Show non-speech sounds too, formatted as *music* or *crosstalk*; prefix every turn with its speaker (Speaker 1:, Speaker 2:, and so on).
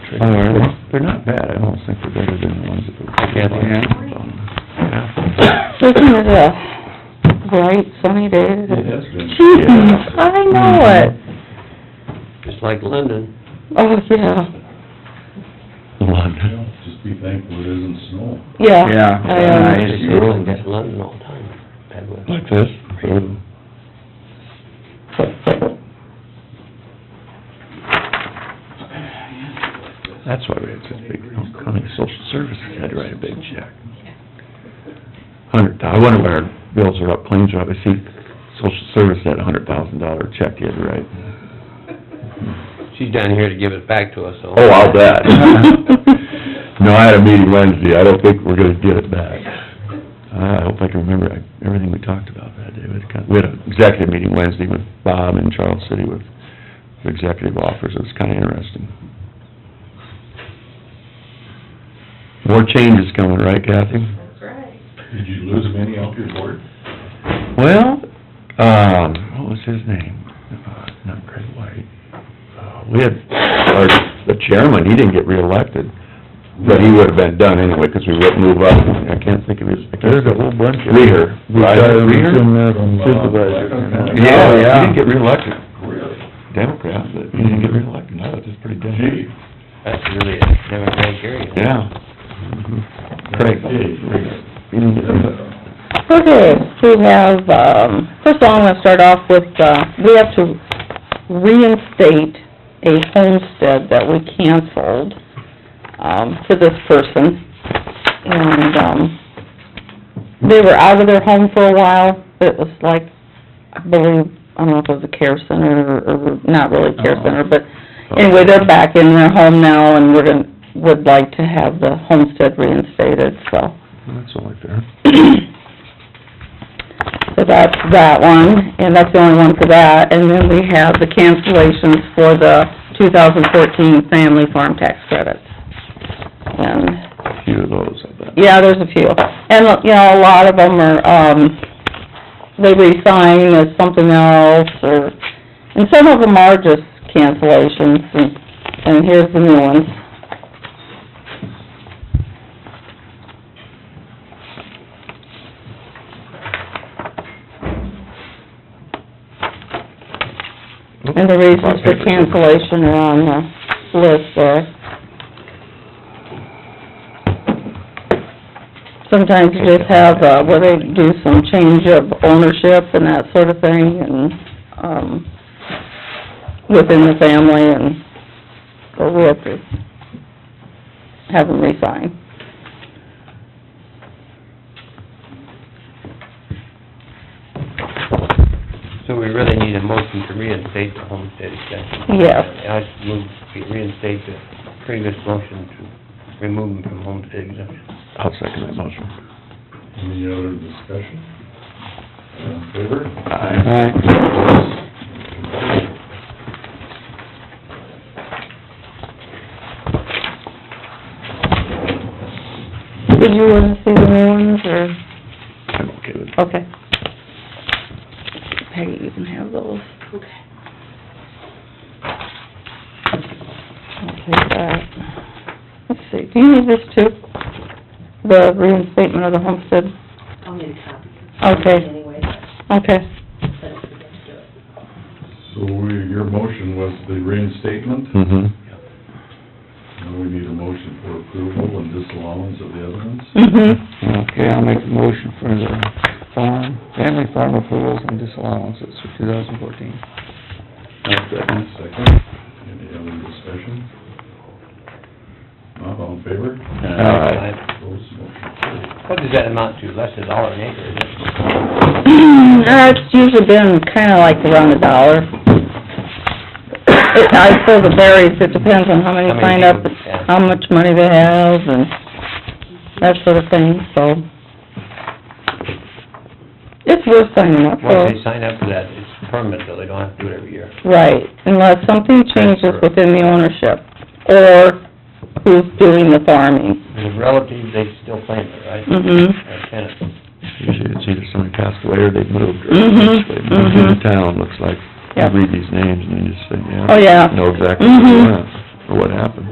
Speaker 1: country.
Speaker 2: All right, they're not bad, I don't think they're better than the ones that were...
Speaker 1: Hi, Kathy. Yeah.
Speaker 3: Isn't it a bright sunny day?
Speaker 4: It has been.
Speaker 3: Gee,
Speaker 2: Yeah.
Speaker 3: I know it.
Speaker 1: Just like London.
Speaker 3: Oh, yeah,
Speaker 2: London.
Speaker 4: Yeah, Just be thankful it isn't snow.
Speaker 3: yeah.
Speaker 2: Yeah,
Speaker 3: I, uh,
Speaker 2: nice.
Speaker 1: It's like that in London all the time. Bad weather.
Speaker 2: Like this? Or- That's why we had such big, Humboldt county social services had to write a big check. Hundred thou, I wonder what our bills are up, claims are up, I see social service had a hundred thousand dollar check you had to write.
Speaker 1: She's down here to give it back to us, so.
Speaker 2: Oh, I'll bet. *laughs* No, I had a meeting Wednesday, I don't think we're gonna get it back. I hope I can remember everything we talked about that day, It was kind, we had an executive meeting Wednesday with Bob in Charles City with the executive officers, it was kinda interesting. More changes coming, right Kathy?
Speaker 5: That's right.
Speaker 4: Did you lose many off your board?
Speaker 2: Well, um, what was his name? Uh, Not Craig White. Uh, We had, our, the chairman, he didn't get reelected, but he would've been done anyway, 'cause we wouldn't move up. I can't think of his, I can't.
Speaker 6: There's a whole bunch of...
Speaker 2: Reher. Ryder Reher?
Speaker 6: Supervisor.
Speaker 2: Yeah, yeah. He didn't get reelected,
Speaker 4: Really?
Speaker 2: Democrat, but he didn't get reelected, no, it's just pretty *laughs*
Speaker 4: Gee.
Speaker 2: dumb.
Speaker 1: That's really a democratic area.
Speaker 2: Yeah. Craig. Reher. He didn't get reelected.
Speaker 3: Okay, we have, um, first of all, I'm gonna start off with, uh, we have to reinstate a homestead that we canceled, um, to this person. And, um, they were out of their home for a while, it was like, I believe, I don't know if it was a care center or, or not really a care center, but anyway, they're back in their home now and we're gonna, would like to have the homestead reinstated, so. *clears throat*
Speaker 2: That's only fair.
Speaker 3: So that's that one, and that's the only one for that. And then we have the cancellations for the 2014 family farm tax credits. And
Speaker 2: A few of those, I bet.
Speaker 3: yeah, there's a few. And, you know, a lot of them are, um, they resign as something else, or, and some of them are just cancellations, and, and here's the new ones. And the reasons for cancellation are on the list there. Sometimes you just have, uh, where they do some change of ownership and that sort of thing, and, um, within the family, and so we have to have them resign.
Speaker 1: So we really need a motion to reinstate the homestead exemption.
Speaker 3: Yes.
Speaker 1: I move to reinstate the previous motion to remove them from homestead exemption.
Speaker 2: I'll second that motion.
Speaker 4: Any other discussion? All in favor?
Speaker 2: Aye.
Speaker 3: Did you wanna see the new ones, or,
Speaker 2: I'm okay with it.
Speaker 3: okay. Peggy, you can have those.
Speaker 5: Okay.
Speaker 3: I'll take that. Let's see, do you need this too? The reinstatement of the homestead?
Speaker 5: I'll need a copy.
Speaker 3: Okay.
Speaker 5: Anyway,
Speaker 3: Okay.
Speaker 5: but if we get to do it.
Speaker 4: So we, your motion was the reinstatement,
Speaker 2: Mm-hmm.
Speaker 4: now we need a motion for approval and disallowance of the evidence.
Speaker 3: Mm-hmm.
Speaker 6: Okay, I'll make a motion for the farm, family farm approvals and disallowances for two thousand fourteen.
Speaker 4: Second, any other discussion? Not all in favor?
Speaker 2: Aye.
Speaker 4: Opposed, motion carried.
Speaker 1: What does that amount to? Less than a dollar an acre, isn't it?
Speaker 3: *clears throat* Uh, it's usually been kinda like around a dollar. It, I suppose it varies, it depends on how many
Speaker 1: How many
Speaker 3: sign up,
Speaker 1: people, yeah.
Speaker 3: how much money they have, and that sort of thing, so. It's worth signing up for,
Speaker 1: Once they sign up for that, it's permanent, though, they don't have to do it every year.
Speaker 3: right, unless something changes
Speaker 1: Transfer.
Speaker 3: within the ownership, or who's doing the farming.
Speaker 1: The relatives, they still claim it, right?
Speaker 3: hmm
Speaker 1: Or tenants.
Speaker 2: Usually it's either somebody passed away or they've moved. or
Speaker 3: Mhm,
Speaker 2: They've moved into
Speaker 3: mhm.
Speaker 2: town, looks like. You
Speaker 3: Yep.
Speaker 2: read these names and you just think, yeah.
Speaker 3: Oh, yeah.
Speaker 2: Know exactly what
Speaker 3: Mhm.
Speaker 2: went, or what happened.